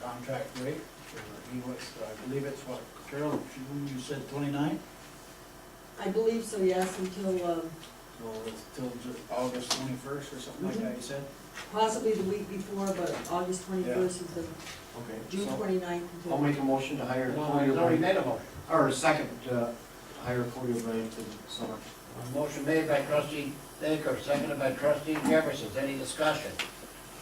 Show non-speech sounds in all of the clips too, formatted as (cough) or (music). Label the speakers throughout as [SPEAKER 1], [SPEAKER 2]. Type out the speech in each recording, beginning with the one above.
[SPEAKER 1] contract rate, or he was, I believe it's what, Carol, you- you said twenty-nine?
[SPEAKER 2] I believe so, yes, until um,
[SPEAKER 1] So it's till Ju- August twenty-first or something like that, you said?
[SPEAKER 2] possibly the week before, but August twenty-first is the,
[SPEAKER 3] Okay,
[SPEAKER 2] June
[SPEAKER 3] so
[SPEAKER 2] twenty-ninth
[SPEAKER 3] I'll
[SPEAKER 2] until.
[SPEAKER 3] make a motion to hire
[SPEAKER 1] No,
[SPEAKER 3] Corey
[SPEAKER 1] he's already
[SPEAKER 3] O'Brien,
[SPEAKER 1] made a motion.
[SPEAKER 3] or a second, uh, hire Corey O'Brien to summer.
[SPEAKER 4] A Motion made by trustee Baker, seconded by trustee Jefferson. Any discussion?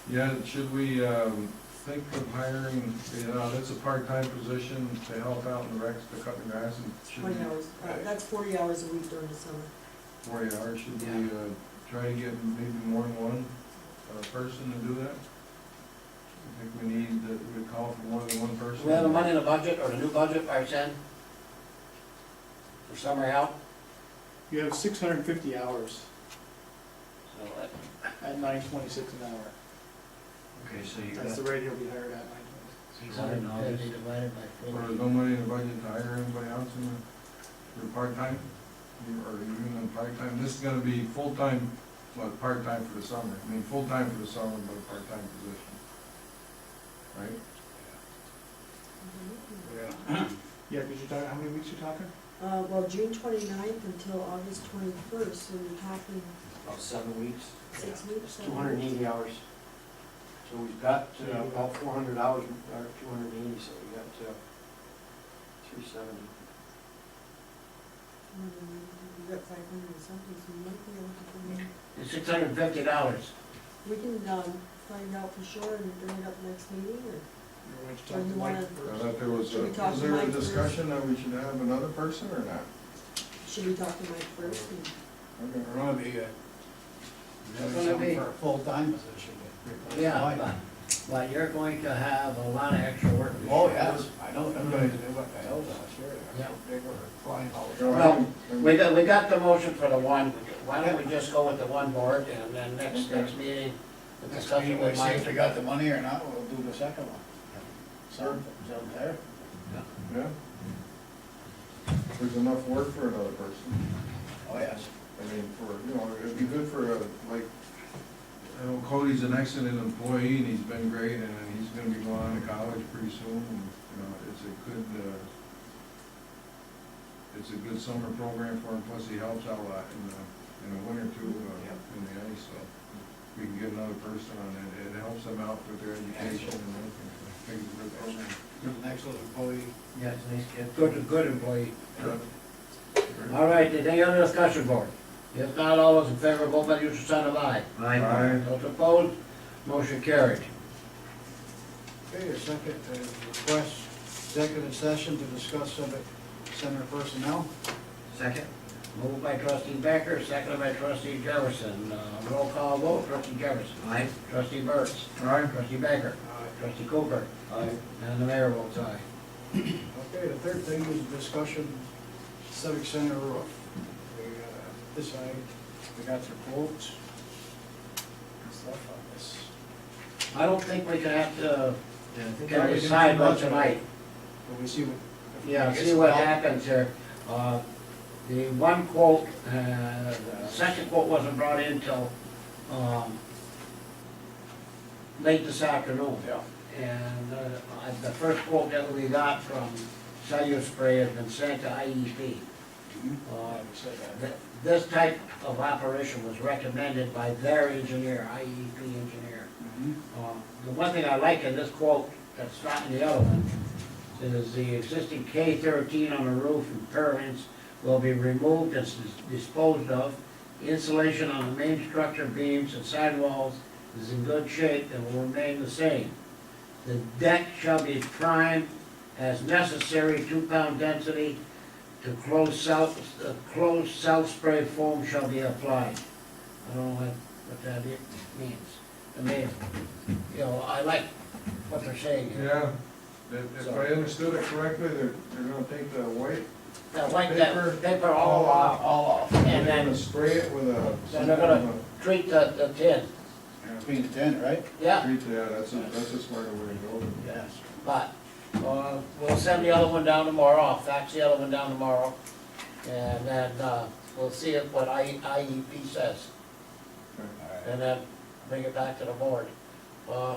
[SPEAKER 5] Yeah, should we, um, think of hiring, you know, that's a part-time position to help out in the wrecks to cut the grass and should
[SPEAKER 2] Twenty
[SPEAKER 5] be
[SPEAKER 2] hours, uh, that's forty hours a week during the summer.
[SPEAKER 5] forty hours, should we, uh, try to get maybe more than one, uh, person to do that? I think we need, that we call for more than one
[SPEAKER 4] Do
[SPEAKER 5] person.
[SPEAKER 4] we have the money in the budget or the new budget, Arson? For summer help?
[SPEAKER 6] You have six hundred and fifty hours
[SPEAKER 4] So, uh,
[SPEAKER 6] at nine twenty-six an hour.
[SPEAKER 3] Okay, so you
[SPEAKER 6] That's
[SPEAKER 3] got.
[SPEAKER 6] the rate he'll be hired at nine
[SPEAKER 3] $650
[SPEAKER 4] divided by
[SPEAKER 5] Or there's no money in the budget to hire anybody else in the, for part-time, or even on part-time, this is gonna be full-time, well, part-time for the summer, I mean, full-time for the summer, but part-time position. Right?
[SPEAKER 2] Mm-hmm.
[SPEAKER 6] (clears throat) Yeah, because you're talking, how many weeks you talking?
[SPEAKER 2] Uh, well, June twenty-ninth until August twenty-first, so you're talking
[SPEAKER 3] About seven weeks.
[SPEAKER 2] six weeks.
[SPEAKER 3] It's
[SPEAKER 2] seven
[SPEAKER 3] two hundred and
[SPEAKER 2] weeks.
[SPEAKER 3] eighty hours. So we've got uh, about four hundred hours, or two hundred and eighty, so we got uh, three seventy.
[SPEAKER 2] Mm, You got five hundred and something, so you might be able to. do it.
[SPEAKER 4] It's six hundred and fifty dollars.
[SPEAKER 2] We can, um, find out for sure and bring it up next meeting, or
[SPEAKER 6] You're going to talk to Mike
[SPEAKER 2] Or you wanna-
[SPEAKER 5] I
[SPEAKER 6] first.
[SPEAKER 5] thought there was, a-
[SPEAKER 2] Should we talk
[SPEAKER 5] was
[SPEAKER 2] to
[SPEAKER 5] there a
[SPEAKER 2] Mike first?
[SPEAKER 5] discussion that we should have another person or not?
[SPEAKER 2] should we talk to Mike first? and-
[SPEAKER 5] Okay,
[SPEAKER 1] We're gonna be, uh,
[SPEAKER 4] gonna
[SPEAKER 1] having something
[SPEAKER 4] be-
[SPEAKER 1] for a full-time position. to replace
[SPEAKER 4] Yeah,
[SPEAKER 1] Mike.
[SPEAKER 4] (laughs) but- but you're going to have a lot of extra work. this
[SPEAKER 1] Oh,
[SPEAKER 4] year.
[SPEAKER 1] yes, I know, them guys do what the hell last year,
[SPEAKER 4] Yeah.
[SPEAKER 1] they were flying all
[SPEAKER 5] Go
[SPEAKER 1] over.
[SPEAKER 4] Well,
[SPEAKER 5] ahead.
[SPEAKER 4] We got, we got the motion for the one, why don't we just go with the one board and then next, next meeting, the
[SPEAKER 1] Next
[SPEAKER 4] discussion
[SPEAKER 1] meeting, we
[SPEAKER 4] with
[SPEAKER 1] see if they
[SPEAKER 4] Mike.
[SPEAKER 1] got the money or not, we'll do the second one. Something's up there.
[SPEAKER 5] Yeah? There's enough work for another person,
[SPEAKER 1] Oh, yes.
[SPEAKER 5] I mean, for, you know, it'd be good for, uh, like, I know Cody's an excellent employee and he's been great and he's gonna be going on to college pretty soon and, you know, it's a good, uh, it's a good summer program for him, plus he helps out a lot in the, in the winter too, uh, in the ice, so. We can get another person on it, it helps them out with their education and everything, I think it's a good program.
[SPEAKER 1] An excellent employee.
[SPEAKER 4] Yeah, it's nice, kid. good, good employee.
[SPEAKER 5] Yeah.
[SPEAKER 4] All right, is any other discussion, board? If not, all those in favor, vote by the usual sign of aye.
[SPEAKER 5] Aye.
[SPEAKER 4] Those opposed, motion carried.
[SPEAKER 1] Okay, your second uh, request, executive session to discuss civic center personnel.
[SPEAKER 3] Second?
[SPEAKER 4] Moved by trustee Becker, seconded by trustee Jefferson. Uh, Roll call vote, trustee Jefferson.
[SPEAKER 3] Aye.
[SPEAKER 4] Trustee Burts.
[SPEAKER 5] Alright,
[SPEAKER 4] Trustee Becker. Trustee Cooper.
[SPEAKER 3] Aye.
[SPEAKER 4] And the mayor votes aye.
[SPEAKER 1] Okay, the third thing is discussion civic center roof. We uh, decided, we got your quotes and stuff on this.
[SPEAKER 4] I don't think we can have to,
[SPEAKER 3] Yeah, I think
[SPEAKER 4] can decide about tonight.
[SPEAKER 1] But we see what. if we
[SPEAKER 4] Yeah,
[SPEAKER 1] get
[SPEAKER 4] see
[SPEAKER 1] some
[SPEAKER 4] what
[SPEAKER 1] help.
[SPEAKER 4] happens here. Uh, The one quote, uh, the second quote wasn't brought in till, um, late this afternoon.
[SPEAKER 1] Yeah.
[SPEAKER 4] And uh, I- the first quote that we got from Cellular Spray has been sent to IEP.
[SPEAKER 1] Yeah,
[SPEAKER 4] Uh,
[SPEAKER 1] we said that.
[SPEAKER 4] th- This type of operation was recommended by their engineer, IEP engineer.
[SPEAKER 1] Mm-hmm.
[SPEAKER 4] Uh, The one thing I like in this quote that's not in the other one is the existing K thirteen on the roof and purlins will be removed and s- disposed of. Insulation on the main structure beams and sidewalls is in good shape and will remain the same. The deck shall be primed as necessary, two pound density to close south, uh, closed south spray foam shall be applied. I don't know what, what that i- means. I mean, you know, I like what they're saying here.
[SPEAKER 5] yeah, if if I understood it correctly, they're, they're gonna take the white,
[SPEAKER 4] They'll wipe that
[SPEAKER 5] Paper.
[SPEAKER 4] paper all off
[SPEAKER 1] All off.
[SPEAKER 5] they're
[SPEAKER 4] and
[SPEAKER 5] gonna
[SPEAKER 4] then
[SPEAKER 5] spray it with a.
[SPEAKER 4] Then they're gonna- treat the, the tin.
[SPEAKER 1] It's being ten, right?
[SPEAKER 4] Yeah,
[SPEAKER 5] Treat that, that's a, that's a smarter way to go.
[SPEAKER 1] Yes.
[SPEAKER 4] but, uh, we'll send the other one down tomorrow, I'll fax the other one down tomorrow. And then, uh, we'll see if what I, IEP says,
[SPEAKER 1] All right.
[SPEAKER 4] and then bring it back to the board. Uh,